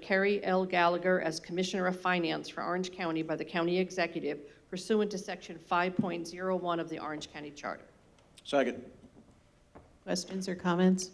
Kerry L. Gallagher as Commissioner of Finance for Orange County by the County Executive pursuant to Section 5.01 of the Orange County Charter. Second. Questions or comments?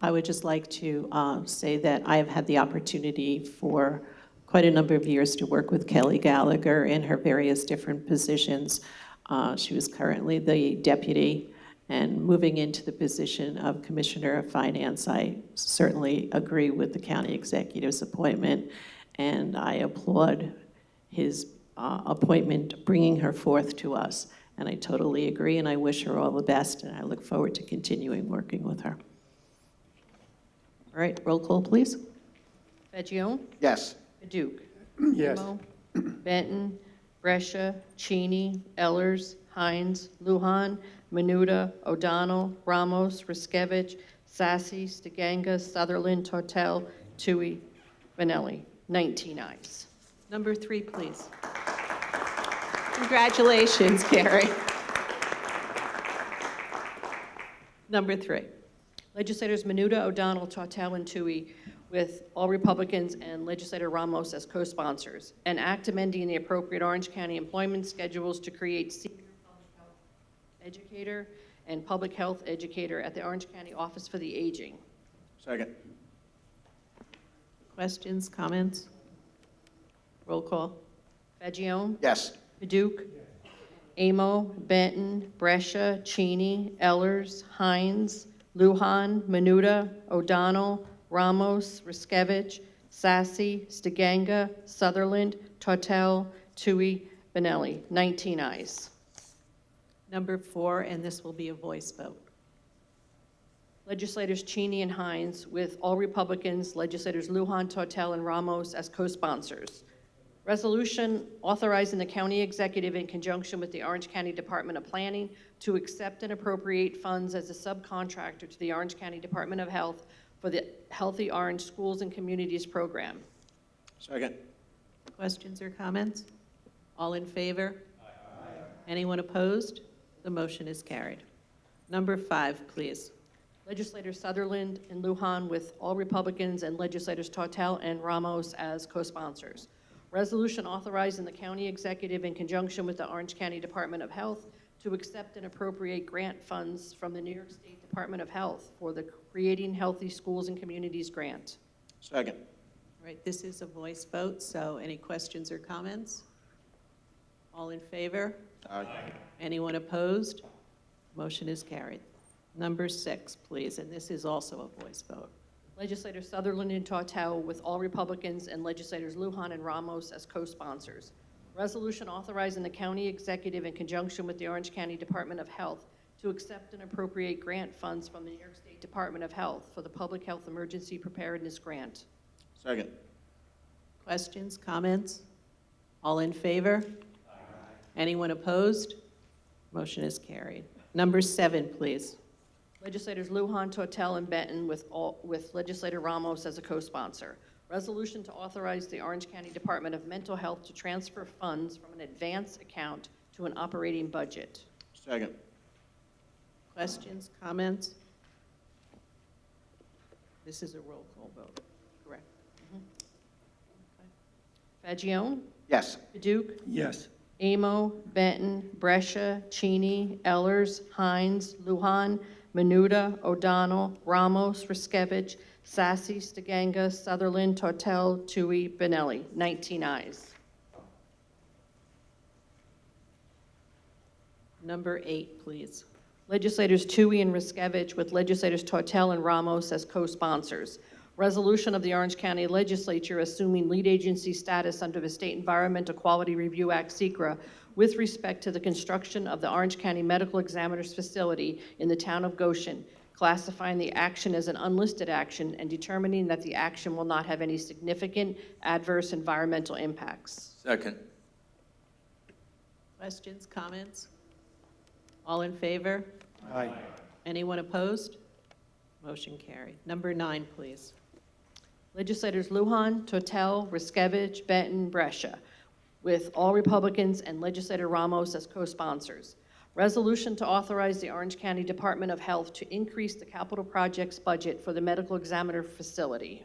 I would just like to uh, say that I have had the opportunity for quite a number of years to work with Kelly Gallagher in her various different positions. Uh, She was currently the deputy, and moving into the position of Commissioner of Finance, I certainly agree with the county executive's appointment, and I applaud his uh, appointment, bringing her forth to us. And I totally agree, and I wish her all the best, and I look forward to continuing working with her. All right, roll call, please. Fagion? Yes. Paduk? Yes. Emo, Benton, Brescia, Cheney, Ellers, Hines, Luhan, Menuda, O'Donnell, Ramos, Riskevich, Sassy, Stiganga, Sutherland, Tortel, Tui, Benelli. 19 ayes. Number three, please. Congratulations, Carrie. Number three. Legislators Menuda, O'Donnell, Tortel, and Tui, with all Republicans and legislator Ramos as co-sponsors. An act amending the appropriate Orange County employment schedules to create senior public health educator and public health educator at the Orange County Office for the Aging. Second. Questions, comments? Roll call. Fagion? Yes. Paduk? Amo, Benton, Brescia, Cheney, Ellers, Hines, Luhan, Menuda, O'Donnell, Ramos, Riskevich, Sassy, Stiganga, Sutherland, Tortel, Tui, Benelli. 19 ayes. Number four, and this will be a voice vote. Legislators Cheney and Hines, with all Republicans, legislators Lujan, Tortel, and Ramos as co-sponsors. Resolution authorizing the county executive in conjunction with the Orange County Department of Planning to accept and appropriate funds as a subcontractor to the Orange County Department of Health for the Healthy Orange Schools and Communities Program. Second. Questions or comments? All in favor? Anyone opposed? The motion is carried. Number five, please. Legislators Sutherland and Lujan with all Republicans and legislators Tortel and Ramos as co-sponsors. Resolution authorizing the county executive in conjunction with the Orange County Department of Health to accept and appropriate grant funds from the New York State Department of Health for the Creating Healthy Schools and Communities Grant. Second. All right, this is a voice vote, so any questions or comments? All in favor? Aye. Anyone opposed? Motion is carried. Number six, please, and this is also a voice vote. Legislators Sutherland and Tortel with all Republicans and legislators Lujan and Ramos as co-sponsors. Resolution authorizing the county executive in conjunction with the Orange County Department of Health to accept and appropriate grant funds from the New York State Department of Health for the Public Health Emergency Preparedness Grant. Second. Questions, comments? All in favor? Anyone opposed? Motion is carried. Number seven, please. Legislators Lujan, Tortel, and Benton with all, with legislator Ramos as a co-sponsor. Resolution to authorize the Orange County Department of Mental Health to transfer funds from an advance account to an operating budget. Second. Questions, comments? This is a roll call vote, correct? Fagion? Yes. Paduk? Yes. Amo, Benton, Brescia, Cheney, Ellers, Hines, Luhan, Menuda, O'Donnell, Ramos, Riskevich, Sassy, Stiganga, Sutherland, Tortel, Tui, Benelli. 19 ayes. Number eight, please. Legislators Tui and Riskevich with legislators Tortel and Ramos as co-sponsors. Resolution of the Orange County Legislature assuming lead agency status under the State Environmental Quality Review Act, SECRA, with respect to the construction of the Orange County Medical Examiner's Facility in the town of Goshen, classifying the action as an unlisted action and determining that the action will not have any significant adverse environmental impacts. Second. Questions, comments? All in favor? Aye. Anyone opposed? Motion carried. Number nine, please. Legislators Lujan, Tortel, Riskevich, Benton, Brescia, with all Republicans and legislator Ramos as co-sponsors. Resolution to authorize the Orange County Department of Health to increase the capital projects budget for the medical examiner facility.